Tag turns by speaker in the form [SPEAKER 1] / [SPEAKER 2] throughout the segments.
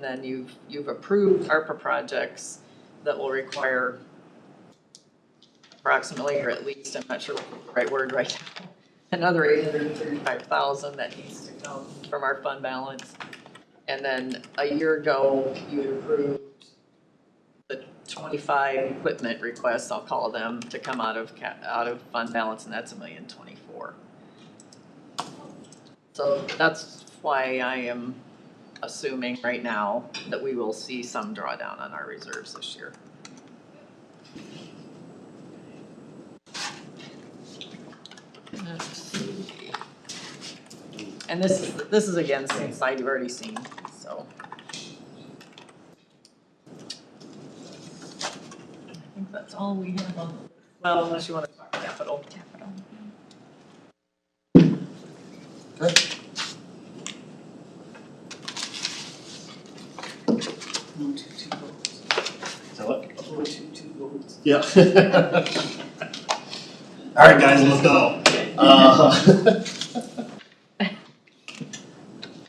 [SPEAKER 1] then you've, you've approved ARPA projects that will require approximately, or at least, I'm not sure what the right word right now, another eight hundred and thirty-five thousand that needs to come from our fund balance. And then a year ago, you had approved the twenty-five equipment requests, I'll call them, to come out of ca- out of fund balance, and that's a million twenty-four. So that's why I am assuming right now that we will see some drawdown on our reserves this year. Let's see. And this is, this is again, same slide you've already seen, so. I think that's all we have on, well, unless you wanna talk capital. Capital.
[SPEAKER 2] One, two, two volts. One, two, two volts.
[SPEAKER 3] Yeah. All right, guys, let's go. Uh,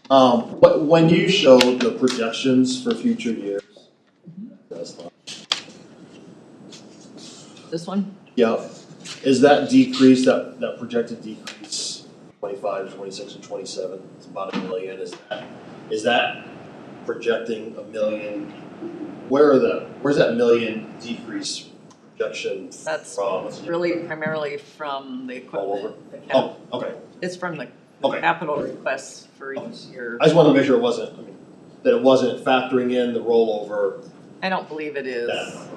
[SPEAKER 3] Um, but when you show the projections for future years. that's fine.
[SPEAKER 1] This one?
[SPEAKER 3] Yep, is that decrease, that, that projected decrease, twenty-five, twenty-six, and twenty-seven, it's about a million, is that, is that projecting a million? Where are the, where's that million decrease projection
[SPEAKER 1] That's
[SPEAKER 3] from? Is it
[SPEAKER 1] Really primarily from the
[SPEAKER 3] All over?
[SPEAKER 1] equipment. the cap-
[SPEAKER 3] Oh, okay.
[SPEAKER 1] It's from the
[SPEAKER 3] Okay.
[SPEAKER 1] capital requests for each year.
[SPEAKER 3] I just wanted to make sure it wasn't, I mean, that it wasn't factoring in the rollover.
[SPEAKER 1] I don't believe it is,
[SPEAKER 3] that-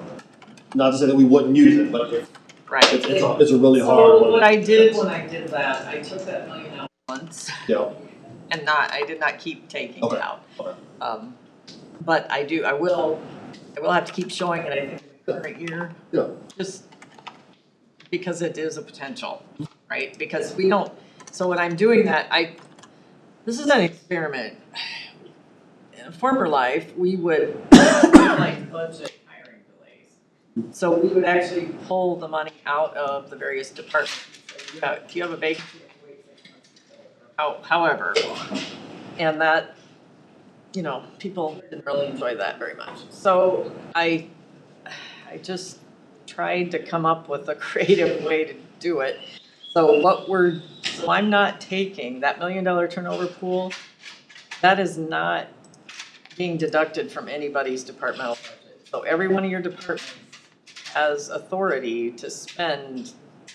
[SPEAKER 3] Not to say that we wouldn't use it, but it-
[SPEAKER 1] right.
[SPEAKER 3] it's, it's, a- it's a really hard
[SPEAKER 1] So
[SPEAKER 3] one,
[SPEAKER 1] what I did when I did that, I took that million out once
[SPEAKER 3] you know,
[SPEAKER 1] and not, I did not keep taking it
[SPEAKER 3] Okay,
[SPEAKER 1] out.
[SPEAKER 3] okay.
[SPEAKER 1] Um, but I do, I will, I will have to keep showing it, I think, in the current year.
[SPEAKER 3] Yeah.
[SPEAKER 1] Just because it is a potential, right? Because we don't, so when I'm doing that, I, this is an experiment. In a former life, we would like budget hiring delays. So we would actually pull the money out of the various departments. If you have- If you have a vacancy, you have to wait six months to fill it, or how- however. And that you know, people didn't really enjoy that very much. So I, I just tried to come up with a creative way to do it. So what we're, so I'm not taking that million dollar turnover pool, that is not being deducted from anybody's departmental budget. So every one of your departments has authority to spend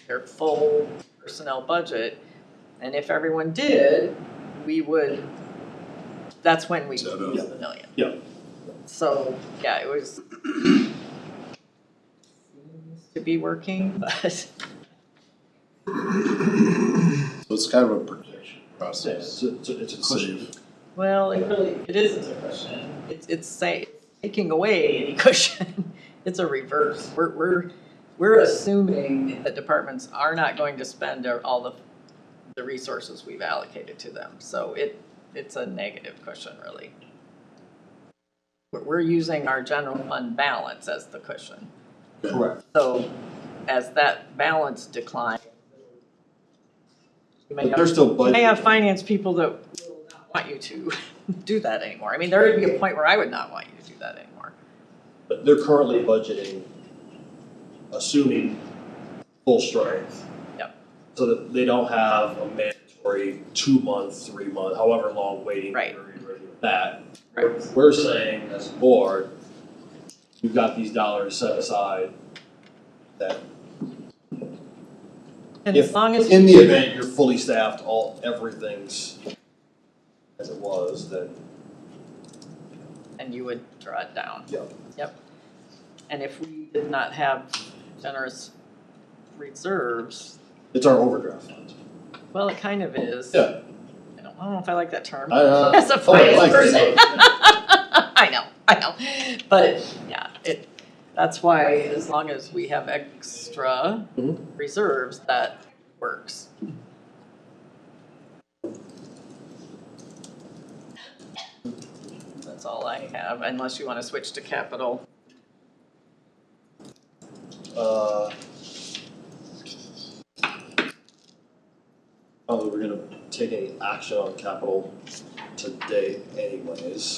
[SPEAKER 1] their full personnel budget. And if everyone did, we would, that's when we use
[SPEAKER 4] Set up.
[SPEAKER 1] the million.
[SPEAKER 3] Yeah.
[SPEAKER 1] So, yeah, it was seems to be working, but
[SPEAKER 4] So it's kind of a projection
[SPEAKER 3] so
[SPEAKER 4] process.
[SPEAKER 3] it's, it's, it's a cushion.
[SPEAKER 4] Save.
[SPEAKER 1] well, it really it isn't a cushion. It's it's say taking away any cushion. It's a reverse. We're we're we're assuming that departments are not going to spend their- all the the resources we've allocated to them. So it it's a negative cushion really. We're we're using our general fund balance as the cushion.
[SPEAKER 3] Correct.
[SPEAKER 1] So as that balance declines. you may
[SPEAKER 3] But
[SPEAKER 1] have-
[SPEAKER 3] they're still
[SPEAKER 1] you may have
[SPEAKER 3] budgeting,
[SPEAKER 1] finance people that will not want you to do that anymore. I mean, there would be a point where I would not want you to do that anymore.
[SPEAKER 3] but they're currently budgeting, assuming full strength.
[SPEAKER 1] Yep.
[SPEAKER 3] So that they don't have a mandatory two-month, three-month, however long waiting
[SPEAKER 1] Right.
[SPEAKER 3] period or anything like that. We're saying as a board, you've got these dollars set aside that
[SPEAKER 1] And
[SPEAKER 3] If-
[SPEAKER 1] as long as,
[SPEAKER 3] in the event you're fully staffed, all, everything's as it was, then
[SPEAKER 1] and you would draw it down.
[SPEAKER 3] Yep.
[SPEAKER 1] Yep. And if we did not have generous reserves,
[SPEAKER 3] it's our overdraft fund.
[SPEAKER 1] well, it kind of is.
[SPEAKER 3] Yeah.
[SPEAKER 1] I don't, I don't know if I like that term.
[SPEAKER 3] I, uh,
[SPEAKER 1] As a
[SPEAKER 3] oh, I like
[SPEAKER 1] finance person.
[SPEAKER 3] it.
[SPEAKER 1] I know, I know, but yeah, it, that's why as long as we have extra
[SPEAKER 3] Mhm.
[SPEAKER 1] reserves, that works. That's all I have, unless you wanna switch to capital.
[SPEAKER 3] Uh, Probably we're gonna take any action on capital today anyways.